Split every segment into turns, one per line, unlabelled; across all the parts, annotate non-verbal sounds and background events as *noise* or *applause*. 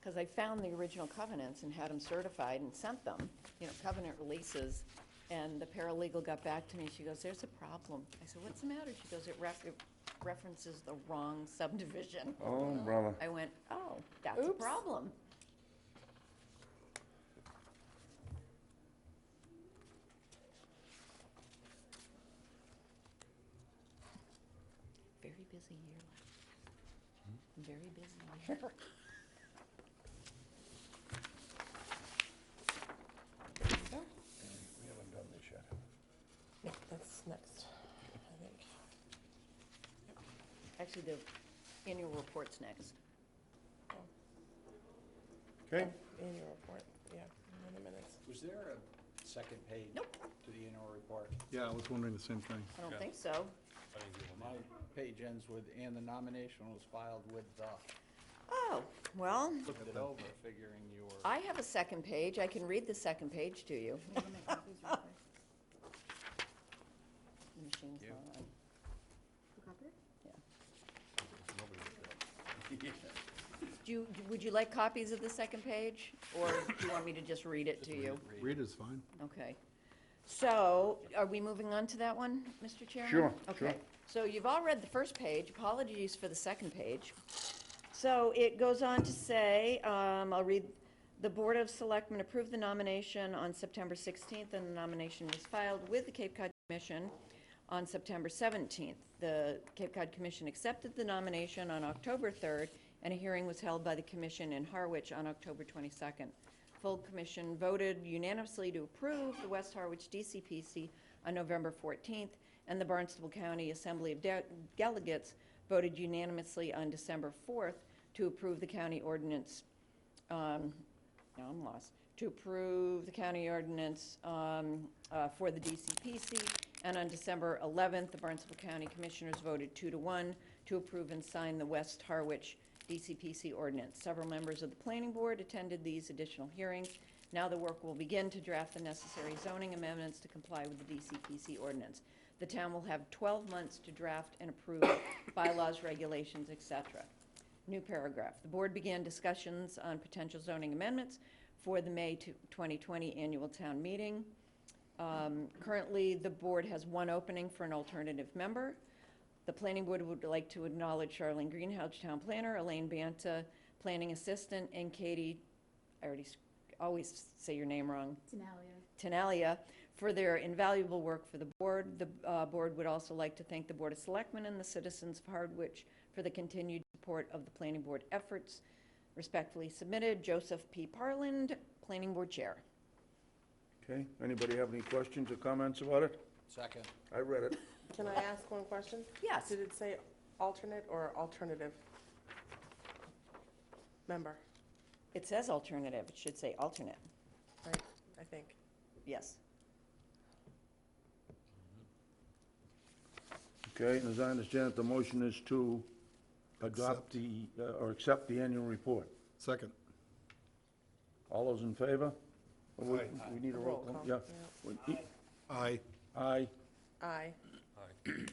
because I found the original covenants and had them certified and sent them, you know, covenant releases. And the paralegal got back to me, she goes, there's a problem. I said, what's the matter? She goes, it ref, it references the wrong subdivision.
Oh, brother.
I went, oh, that's a
Oops.
problem. Very busy year last. Very busy year.
We haven't done this yet.
Yeah, that's next, I think.
Actually, the annual report's next.
Okay,
In your report, yeah, in the minutes.
Was there a second page?
Nope.
To the annual report?
Yeah, I was wondering the same thing.
I don't think so.
My page ends with, and the nomination was filed with the,
Oh, well,
looked it over figuring you were.
I have a second page. I can read the second page to you. *laughs* The machine's
Yeah.
not on. Do you, would you like copies of the second page? Or do you want me to just read it to you?
Read is fine.
Okay. So, are we moving on to that one, Mr. Chairman?
Sure, sure.
Okay. So you've all read the first page. Apologies for the second page. So it goes on to say, um, I'll read, "The Board of Selectmen approved the nomination on September 16th, and the nomination was filed with the Cape Cod Commission on September 17th. The Cape Cod Commission accepted the nomination on October 3rd, and a hearing was held by the commission in Harwich on October 22nd. Full commission voted unanimously to approve the West Harwich DCPC on November 14th, and the Barnstable County Assembly of De- Delegates voted unanimously on December 4th to approve the county ordinance, um, now I'm lost, to approve the county ordinance um, uh, for the DCPC, and on December 11th, the Barnstable County Commissioners voted two to one to approve and sign the West Harwich DCPC ordinance. Several members of the planning board attended these additional hearings. Now the work will begin to draft the necessary zoning amendments to comply with the DCPC ordinance. The town will have 12 months to draft and approve bylaws, regulations, et cetera. New paragraph. The board began discussions on potential zoning amendments for the May two- 2020 annual town meeting. Um, Currently, the board has one opening for an alternative member. The planning board would like to acknowledge Charlene Greenhouse, town planner, Elaine Banta, planning assistant, and Katie, I already s- always say your name wrong,
Denalia.
Tenalia for their invaluable work for the board. The uh, board would also like to thank the Board of Selectmen and the citizens of Hardwich for the continued support of the planning board efforts. Respectfully submitted, Joseph P. Parland, Planning Board Chair.
okay. Anybody have any questions or comments about it?
Second.
I read it.
Can I ask one question?
Yes.
Did it say alternate or alternative? Member,
It says alternative, it should say alternate,
right, I think.
yes.
Okay, and as I understand it, the motion is to adopt
Accept.
the, uh, or accept the annual report.
Second.
All those in favor? Or we-
Aye.
We need a roll call, yeah.
Roll
We-
Aye.
Aye,
Aye.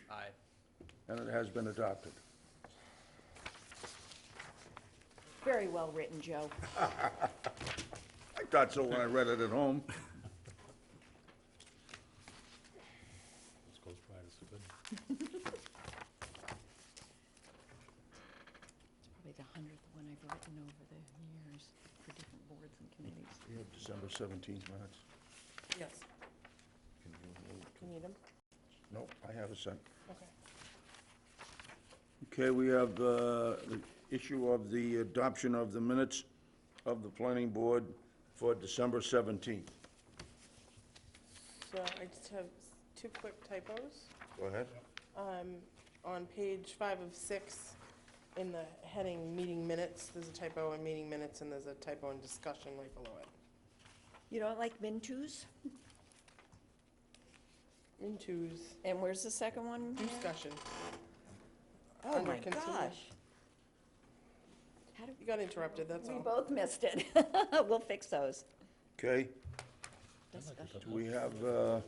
Aye.
and it has been adopted.
Very well written, Joe.
I thought so when I read it at *laughs* home.
It's probably the hundredth one I've written over the years for different boards and committees.
We have December 17th minutes.
Yes. You need them?
Nope, I have a second.
Okay.
Okay, we have uh, the issue of the adoption of the minutes of the planning board for December 17th.
So I just have two quick typos.
Go ahead.
Um, On page five of six, in the heading meeting minutes, there's a typo in meeting minutes and there's a typo in discussion right below it.
You don't like Mintus?
Into's
And where's the second one?
discussion.
Oh,
Under
my
continue.
gosh. How did
You got interrupted, that's
We
all.
both missed it. *laughs* We'll fix those.
Okay,
Discussion.
do we have uh,